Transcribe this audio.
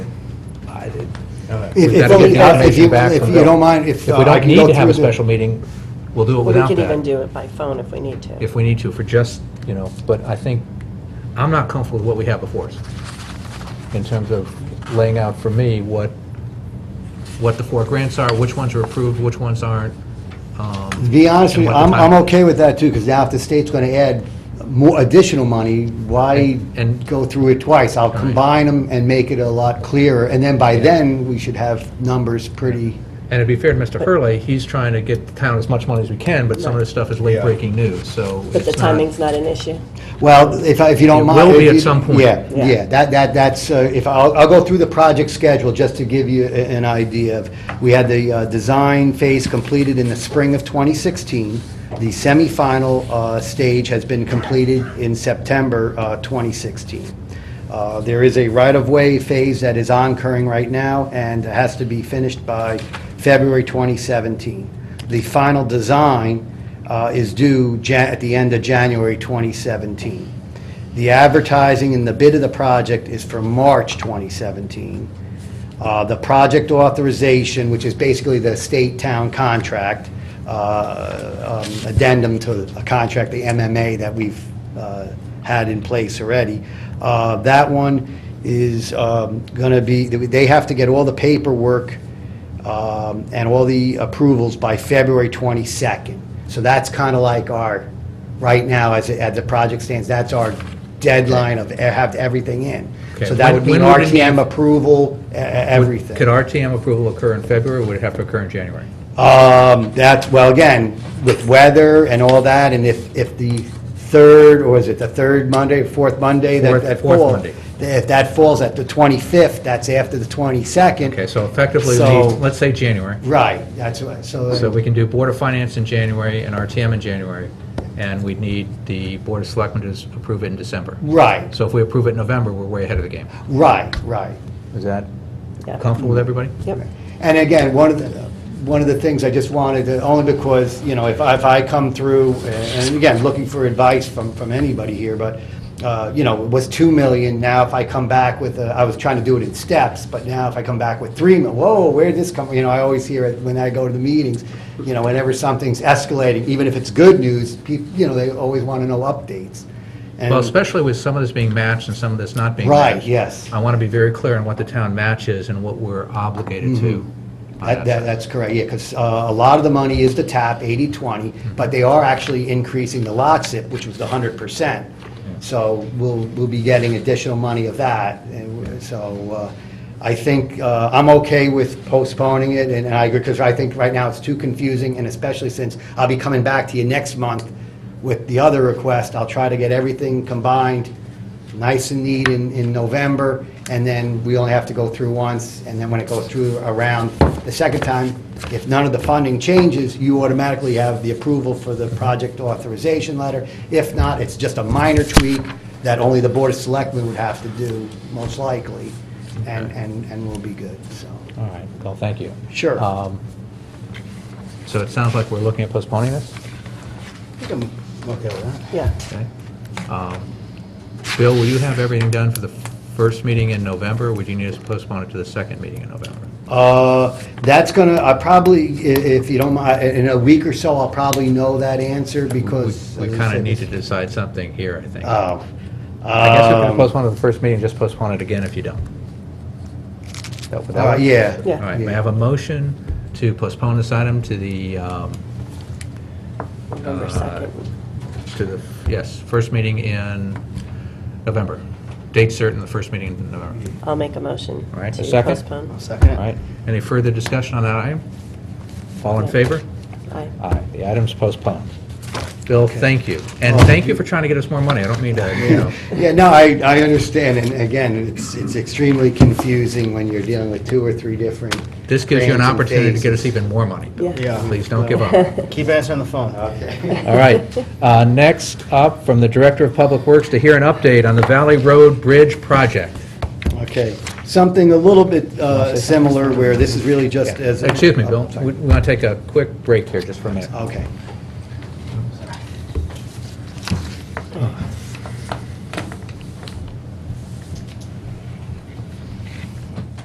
I did- Alright. If, Would if that be you- the if information you, back if from you Bill? don't mind, if. If we I don't can need go to have a through the- special meeting, we'll do it We without could even that, do it by phone if we need to. if we need to, for just, you know, but I think, I'm not comfortable with what we have before us, in terms of laying out for me what, what the four grants are, which ones are approved, which ones aren't. um, To be honest and what with you, the I'm, I'm timing- okay with that too, because now if the state's gonna add more additional money, why And- and- go through it twice? I'll combine them and make it a lot clearer, and then by then, we should have numbers pretty, And it'd be fair to Mr. Hurley, he's trying to get the town as much money as we can, but some of this stuff is late-breaking news, so. But the it's not- timing's not an issue. well, if, I- if you It don't mind. will be if at you- some point. Yeah, Yeah. yeah, that, that, that's, uh, if, I'll, I'll go through the project schedule just to give you a- an idea of, we had the uh, design phase completed in the spring of 2016. The semifinal uh, stage has been completed in September uh, 2016. Uh, There is a right-of-way phase that is oncurring right now and has to be finished by February 2017. The final design uh, is due Ja- at the end of January 2017. The advertising and the bid of the project is for March 2017. Uh, The project authorization, which is basically the state-town contract, uh, um, addendum to a contract, the MMA that we've uh, had in place already, uh, that one is going to be, they have to get all the paperwork um, and all the approvals by February 22nd. So that's kind of like our, right now, as, it- as the project stands, that's our deadline of e- have everything in. Okay. So that would When- mean when would it be- RTM approval, e- e- everything. Could RTM approval occur in February, or would it have to occur in January? Um, that's, well, again, with weather and all that, and if, if the third, or is it the third Monday, fourth Monday? that- Fourth- that fourth fall- Monday. If that falls at the 25th, that's after the 22nd. Okay, so effectively, we So- need- let's say January. Right, that's what, so. So we can do Board of Finance in January and RTM in January, and we'd need the Board of Selectmen to s- approve it in December. Right, So if we approve it in November, we're way ahead of the game. right, right. Is that Yeah. comfortable with everybody? Yep. And again, one of the, one of the things I just wanted to, only because, you know, if I, if I come through, and again, looking for advice from, from anybody here, but, uh, you know, it was 2 million, now if I come back with, a- I was trying to do it in steps, but now if I come back with 3 million, whoa, where'd this come, you know, I always hear it when I go to the meetings, you know, whenever something's escalating, even if it's good news, people, you know, they always want to know updates. And- Well, especially with some of this being matched and some of this not being matched. Right, yes. I want to be very clear on what the town match is and what we're obligated to. on That, that that- side. that's correct, yeah, because a lot of the money is the tap, 80/20, but they are actually increasing the lot zip, which was the 100%. So we'll, we'll be getting additional money of that, and w- so uh, I think, uh, I'm okay with postponing it, and and I agree, because I think right now it's too confusing, and especially since I'll be coming back to you next month with the other request, I'll try to get everything combined, nice and neat in, in November, and then we only have to go through once, and then when it goes through around the second time, if none of the funding changes, you automatically have the approval for the project authorization letter. If not, it's just a minor tweak that only the Board of Selectmen would have to do, most likely, and, and, and we'll be good, so. All right, well, thank you. Sure. Um, So it sounds like we're looking at postponing this? I think I'm okay with that. Yeah. Okay. Um, Bill, will you have everything done for the first meeting in November, or would you need us to postpone it to the second meeting in November? Uh, That's gonna, I probably, i- if you don't mind, in a week or so, I'll probably know that answer, because. We as I kind of said, need to decide something here, I think. I Oh. guess if we Um, postpone it to the first meeting, just postpone it again if you don't. That would- that uh, would- Yeah. Yeah. All right, may I have a motion to postpone this item to the, um, November Uh, 2nd. to the, yes, first meeting in November? Date certain, the first meeting in November. I'll make a motion Uh, All right, a to second? postpone. Second All right, any further discussion on that item? All in favor? Aye. Aye, the item's postponed. Bill, thank you. And Oh. thank you for trying to get us more money. I don't mean to, you know. Yeah, no, I, I understand, and again, it's, it's extremely confusing when you're dealing with two or three different. This gives you an brands and opportunity to get us phases. even more money. Bill. Yeah. Yeah. Please don't give up. Keep answering the phone. Okay. All right. Uh, Next up, from the Director of Public Works to hear an update on the Valley Road Bridge project. Okay, something a little bit uh, similar, where this is really just as. a- Oh, Oh, Excuse me, Bill, we want to take a quick break here just for a minute. Okay.